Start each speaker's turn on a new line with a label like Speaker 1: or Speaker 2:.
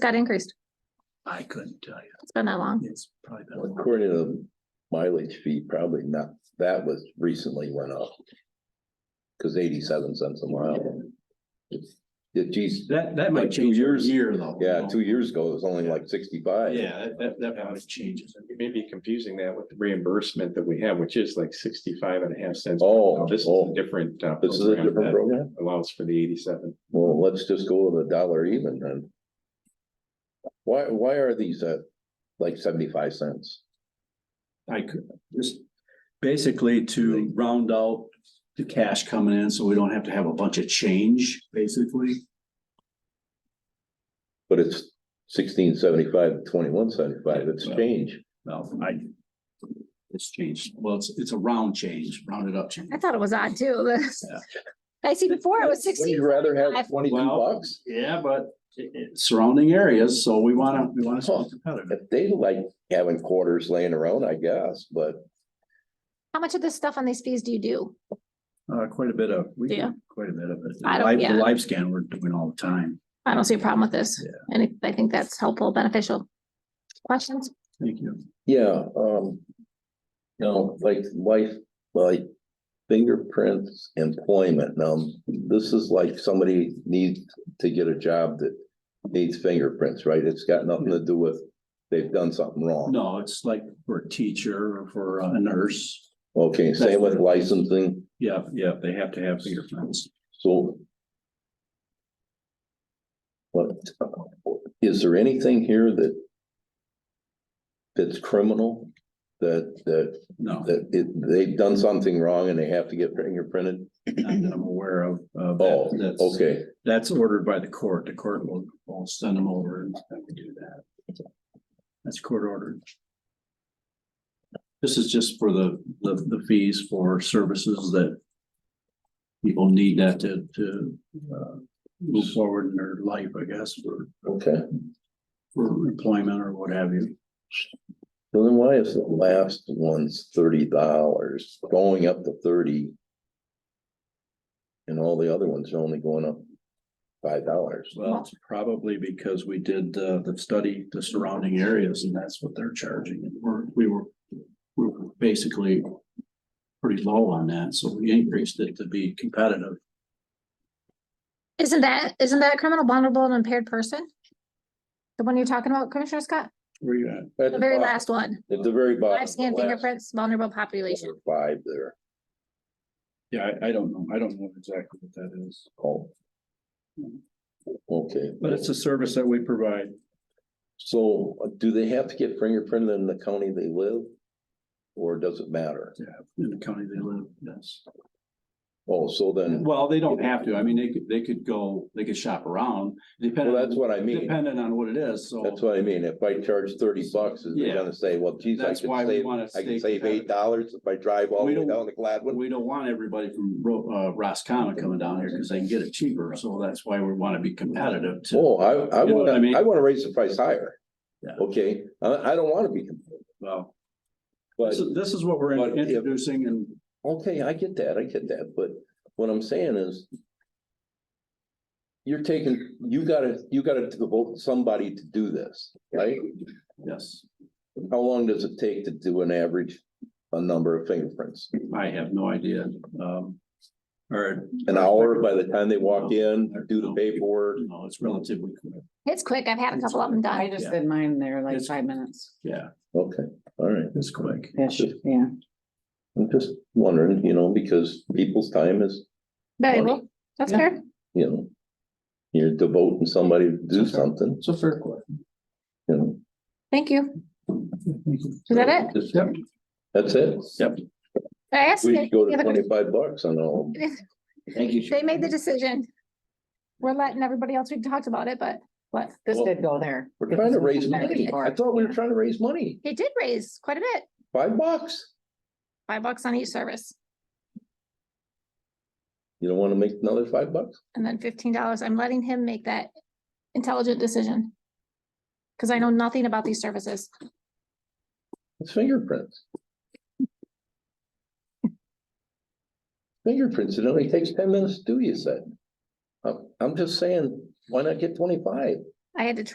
Speaker 1: got increased.
Speaker 2: I couldn't tell you.
Speaker 1: It's been that long.
Speaker 2: It's probably been. a long-
Speaker 3: According to the mileage fee, probably not, that was recently went up. Cause eighty-seven cents a mile. It's, it, geez,
Speaker 4: That, that might
Speaker 3: Like two
Speaker 4: change every
Speaker 3: years.
Speaker 4: year though.
Speaker 3: yeah, two years ago, it was only like sixty-five.
Speaker 4: Yeah, that- that, that probably changes.
Speaker 5: You may be confusing that with the reimbursement that we have, which is like sixty-five and a half cents.
Speaker 3: Oh,
Speaker 5: This is a
Speaker 3: oh,
Speaker 5: different. uh,
Speaker 3: this is a
Speaker 5: program
Speaker 3: different
Speaker 5: that
Speaker 3: program?
Speaker 5: Allows for the eighty-seven.
Speaker 3: Well, let's just go with a dollar even then. Why, why are these at like seventy-five cents?
Speaker 4: I could, just basically to round out the cash coming in, so we don't have to have a bunch of change, basically.
Speaker 3: But it's sixteen seventy-five, twenty-one seventy-five, it's change.
Speaker 4: Well, I. It's changed. Well, it's, it's a round change, rounded up change.
Speaker 1: I thought it was odd too.
Speaker 4: Yeah.
Speaker 1: I see before it was
Speaker 3: Would
Speaker 1: sixteen.
Speaker 3: you rather have
Speaker 1: I've-
Speaker 3: twenty-two
Speaker 4: Well-
Speaker 3: bucks?
Speaker 4: Yeah, but it- it- surrounding areas, so we wanna, we wanna stay competitive.
Speaker 3: If they like having quarters laying around, I guess, but
Speaker 1: How much of this stuff on these fees do you do?
Speaker 4: Uh, quite a bit of, we
Speaker 1: Yeah.
Speaker 4: do quite a bit of it.
Speaker 1: I don't-
Speaker 4: Live-
Speaker 1: yeah.
Speaker 4: The live scan we're doing all the time.
Speaker 1: I don't see a problem with this.
Speaker 4: Yeah.
Speaker 1: And it- I think that's helpful, beneficial. Questions?
Speaker 4: Thank you.
Speaker 3: yeah, um. You know, like life, like fingerprints, employment. Now, this is like somebody needs to get a job that needs fingerprints, right? It's got nothing to do with they've done something wrong.
Speaker 4: No, it's like for a teacher or for a nurse.
Speaker 3: Okay, same with licensing,
Speaker 4: Yeah, yeah, they have to have fingerprints.
Speaker 3: so. What, uh, is there anything here that? That's criminal, that, that
Speaker 4: No,
Speaker 3: that it, they've done something wrong and they have to get fingerprinted?
Speaker 4: not that I'm aware of. uh, that-
Speaker 3: Oh,
Speaker 4: that's-
Speaker 3: okay,
Speaker 4: That's ordered by the court. The court will, will send them over and have to do that. That's court ordered. This is just for the, the, the fees for services that people need that to, to, uh, move forward in their life, I guess, for,
Speaker 3: okay.
Speaker 4: for employment or what have you.
Speaker 3: So then why is the last one's thirty dollars going up to thirty? And all the other ones are only going up five dollars.
Speaker 4: Well, it's probably because we did, uh, the study, the surrounding areas, and that's what they're charging. And we're, we were, we were basically pretty low on that, so we increased it to be competitive.
Speaker 1: Isn't that, isn't that criminal vulnerable and impaired person? The one you're talking about, Commissioner Scott?
Speaker 4: Where you at?
Speaker 1: The very last one.
Speaker 3: At the very bottom.
Speaker 1: Live scan
Speaker 3: the last
Speaker 1: fingerprints, vulnerable population.
Speaker 3: four or Five there,
Speaker 4: Yeah, I, I don't know. I don't know exactly what that is.
Speaker 3: oh. Okay.
Speaker 4: a service that we provide.
Speaker 3: So uh, do they have to get fingerprinted in the county they live? Or does it matter?
Speaker 4: Yeah, in the county they live, yes.
Speaker 3: Oh, so then,
Speaker 4: Well, they don't have to. I mean, they could, they could go, they could shop around,
Speaker 3: well,
Speaker 4: depending,
Speaker 3: that's what I mean.
Speaker 4: depending on what it is, so.
Speaker 3: That's what I mean, if I charge thirty bucks, is they
Speaker 4: Yeah.
Speaker 3: gonna say, well, geez, I
Speaker 4: That's why
Speaker 3: can
Speaker 4: we
Speaker 3: save,
Speaker 4: wanna
Speaker 3: I
Speaker 4: stay
Speaker 3: can save
Speaker 4: competitive.
Speaker 3: eight dollars if I drive all
Speaker 4: We
Speaker 3: the way
Speaker 4: don't-
Speaker 3: down to
Speaker 4: But
Speaker 3: Gladwin?
Speaker 4: we don't want everybody from Ro- uh Roscommon coming down here because they can get it cheaper, so that's why we want to be competitive too.
Speaker 3: Oh, I, I
Speaker 4: You know what I mean?
Speaker 3: wanna, I wanna raise the price higher.
Speaker 4: Yeah.
Speaker 3: Okay, I, I don't wanna be,
Speaker 4: Well,
Speaker 3: but,
Speaker 4: this is, this is what we're
Speaker 3: but if-
Speaker 4: introducing and
Speaker 3: okay, I get that, I get that, but what I'm saying is. You're taking, you gotta, you gotta devote somebody to do this, right?
Speaker 4: yes,
Speaker 3: How long does it take to do an average, a number of fingerprints?
Speaker 4: I have no idea. Um, or.
Speaker 3: An hour by the time they walk in, do the paperwork?
Speaker 4: No, it's relatively quick.
Speaker 1: It's quick. I've had a couple of them
Speaker 6: I
Speaker 1: done.
Speaker 6: just
Speaker 4: Yeah.
Speaker 6: did mine there like
Speaker 4: It's-
Speaker 6: five minutes.
Speaker 4: Yeah,
Speaker 3: Okay, all right.
Speaker 4: it's quick.
Speaker 6: Ish,
Speaker 3: Just-
Speaker 6: yeah.
Speaker 3: I'm just wondering, you know, because people's time is,
Speaker 1: Valuable. That's
Speaker 6: Yeah.
Speaker 1: fair.
Speaker 3: you know. You're devoting somebody to do
Speaker 4: Okay.
Speaker 3: something,
Speaker 4: It's a fair question.
Speaker 3: you know,
Speaker 1: Thank you. Is that it?
Speaker 3: just,
Speaker 4: Yep.
Speaker 3: that's it.
Speaker 4: Yep.
Speaker 1: I asked.
Speaker 3: We could go
Speaker 1: any
Speaker 3: to
Speaker 1: other
Speaker 3: twenty-five bucks on all,
Speaker 1: questions?
Speaker 4: Thank you.
Speaker 1: They made the decision. We're letting everybody else, we talked about it, but what?
Speaker 6: This
Speaker 3: Well,
Speaker 6: did go there.
Speaker 3: we're trying to raise money,
Speaker 6: Before.
Speaker 3: I thought we were trying to raise money,
Speaker 1: It did raise quite a bit,
Speaker 3: five bucks.
Speaker 1: five bucks on each service
Speaker 3: You don't wanna make another five bucks?
Speaker 1: and then fifteen dollars. I'm letting him make that intelligent decision. Cause I know nothing about these services.
Speaker 3: It's fingerprints. Fingerprints, it only takes ten minutes to do, you said. I'm, I'm just saying, why not get twenty-five?
Speaker 1: I had to